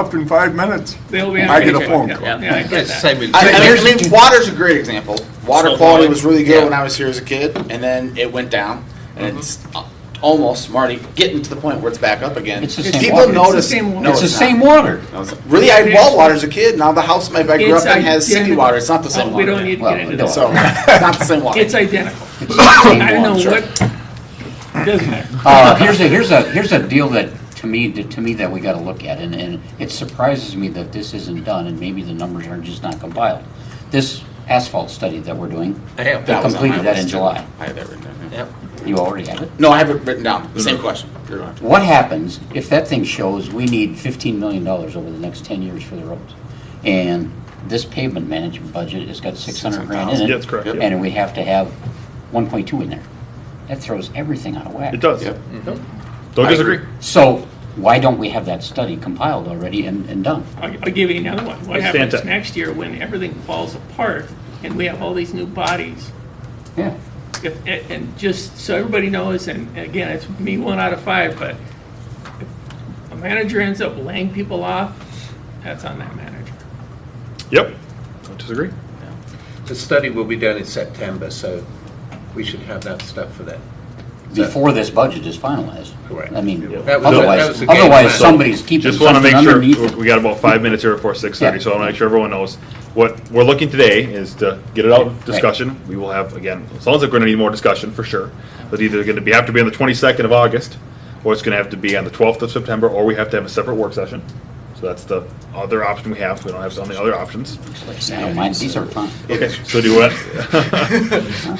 up in five minutes. They'll be on I get a vacation. phone Yeah, call. Yeah, I get Yes, that. same with- I mean, here's- I mean, water's a great example. Water Salt quality water. was really good Yeah. when I was here as a kid, and then it went down, and it's uh, almost Marty getting to the point where it's back up again. It's the same People water. It's the notice. same water. No, It's the not. same water. No, it's not. Really, I had well water as a kid. Now the house my I grew It's up in has city identical. water. It's not the same Oh, water. we don't need to Well, get into Uh, we that. So it's not the same water. It's identical. I don't know Sure. what, doesn't matter. Uh, here's a, here's a, here's a deal that, to me, that, to me, that we gotta look at, and, and it surprises me that this isn't done, and maybe the numbers are just not compiled. This asphalt study that we're doing, I have They That was on my completed that in list, too. July. I had that written down. yeah. Yep. You already have it? No, I have it written down. Same question. You're right. What happens if that thing shows we need fifteen million dollars over the next ten years for the roads? And this pavement management budget has got six hundred grand in it. That's correct, yeah. And we have to have one point two in there. That throws everything out of whack. It does. Yep. Don't I disagree. agree. So why don't we have that study compiled already and, and done? I'll I'll give you another one. What It's happens fantastic. next year when everything falls apart and we have all these new bodies? Yeah. If, and and just so everybody knows, and again, it's me one out of five, but if a manager ends up laying people off, that's on that manager. Yep. Don't disagree. The study will be done in September, so we should have that stuff for then. Before this budget is finalized. Correct. I mean, That was- that was otherwise, the game otherwise plan. somebody's keeping Just want to something make sure, underneath we we got about five minutes here before six thirty, Yeah. so I want to make sure everyone knows. What we're looking today is to get it out, of discussion. We will have, again, it sounds like we're going to need more discussion for sure. But either going to be, have to be on the twenty-second of August, or it's going to have to be on the twelfth of September, or we have to have a separate work session. So that's the other option we have. We don't have so many other options. it. I don't mind, these are fine. Okay, so do what?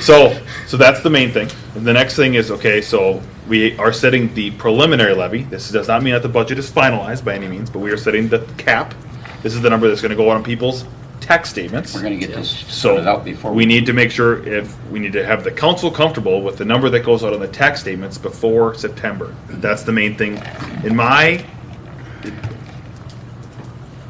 So, so that's the main thing. And the next thing is, okay, so we are setting the preliminary levy. This does not mean that the budget is finalized by any means, but we are setting the cap. This is the number that's gonna go on people's tax statements. We're gonna get this sorted So out before. we need to make sure if, we need to have the council comfortable with the number that goes out on the tax statements before September. That's the main thing. In my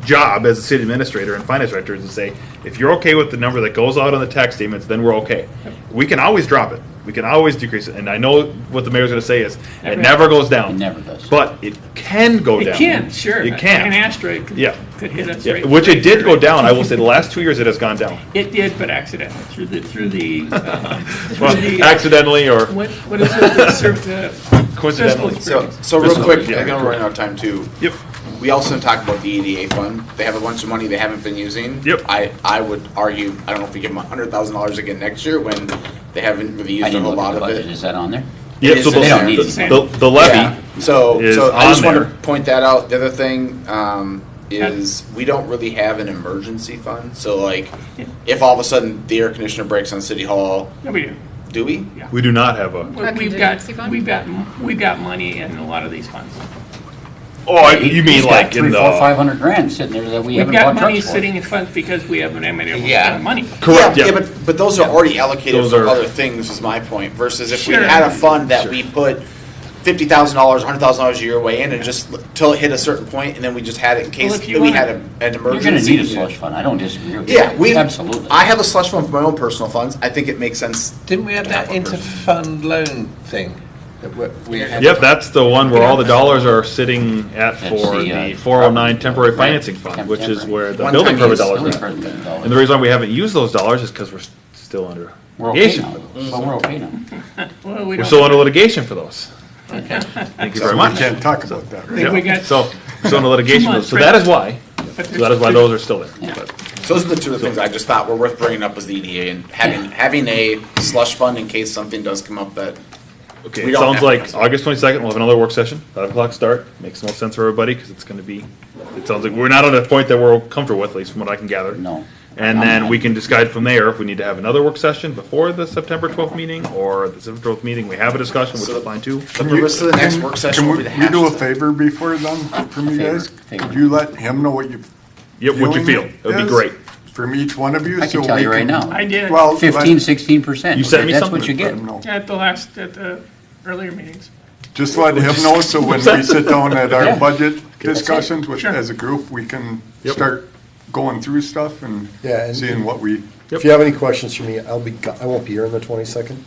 job as a city administrator and finance director is to say, if you're okay with the number that goes out on the tax statements, then we're okay. We can always drop it. We can always decrease it. And I know what the mayor's gonna say is, it Never. never goes down. It never does. But it can go down. It can, sure. It An can. asteroid could Yeah. could hit us. Yeah, right- Which it did go right- down. I will say the last two years it has gone down. It did, but accidentally, through the, through the, um, through Well, the. uh, accidentally or What, what is it that served the Coincidentally. fiscal So, experience? so real Fiscal, quick, yeah. I'm gonna run out of time too. Yep. We also talked about the EDA fund. They have a bunch of money they haven't been using. Yep. I, I would argue, I don't know if we give them a hundred thousand dollars again next year when they haven't really I used a didn't whole look at lot the of budget, it. is that on there? Yeah, It so is the, in there. the, the- the levy, Yeah. So, is so I just on want there. to point that out. The other thing um, is we don't really have an emergency fund. So like, Yeah. if all of a sudden the air conditioner breaks on City Hall, Yeah, we do. do we? we do not have a, But A We've got, contingency fund? we've got, we've got money in a lot of these funds. oh, He- you mean he's got like in Three, four, five the, hundred grand sitting there that we We've haven't got bought money trucks for. sitting in funds because we haven't been able to Yeah. spend money. correct, yeah, yeah. but but those are already allocated Those for are- other things. Is my point. Versus if Sure. we had a fund that we put fifty thousand dollars, hundred thousand dollars a year way in, and just l- till it hit a certain point, and then we just had it in case if you we wanna- had a, an You're emergency. gonna need a slush fund, I don't disagree with you. Yeah, we Absolutely. I have a slush fund for my own personal funds. I think it makes sense. Didn't we have that Capital improvement. interfund loan thing? that we- we had? Yep, that's the one where all the dollars are sitting at That's for the, uh, the four oh nine temporary right, financing fund, temp- which is temporary. where the One building time permit use, dollars Only are. for the million dollars. And the reason why we haven't used those dollars is because we're s- still under We're okay litigation. now, for those. Mm-hmm. but we're okay now. Well, we We're don't. still under litigation for those. Thank you very We much. can't talk about that, right? Think we Yep, got- So, so under litigation, for those. so Two that months, is why, but so that is why there's- those are still there. But- So those are the two things I just thought were worth bringing up was the EDA and having having a slush fund in case something does come up that Okay, We it don't sounds have like to. August twenty-second, we'll have another work session, five o'clock start, makes no sense for everybody, because it's gonna be, it sounds like, we're not at a point that we're comfortable with, at least from what I can gather. No. And then we can decide from there if we need to have another work session before the September twelfth meeting, or the September twelfth meeting, we have a discussion, which So- is fine too. But the rest of the next Can- work session can will we- be the You do a hashtag. favor before then, from you Favor, guys? favor. Could you let him know what you. Yep, what you feel, feeling it would be is great. From each one of you? I can so tell we you right now. I did, Well. let- Fifteen, sixteen percent. You sent me That's what you something. let get. him know. at the last, at the earlier meetings. Just let him know, so when we sit down at Yeah. our budget discussions with, Sure. as a group, we can Yep. start going through stuff and Yeah, and- seeing what we. If you have any questions for me, I'll be, go- I won't be here on the twenty-second.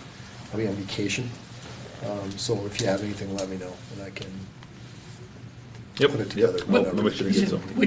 I'll be on vacation. Um, so if you have anything, let me know and I can Yep. put it together. Yep. We'll make sure to get some.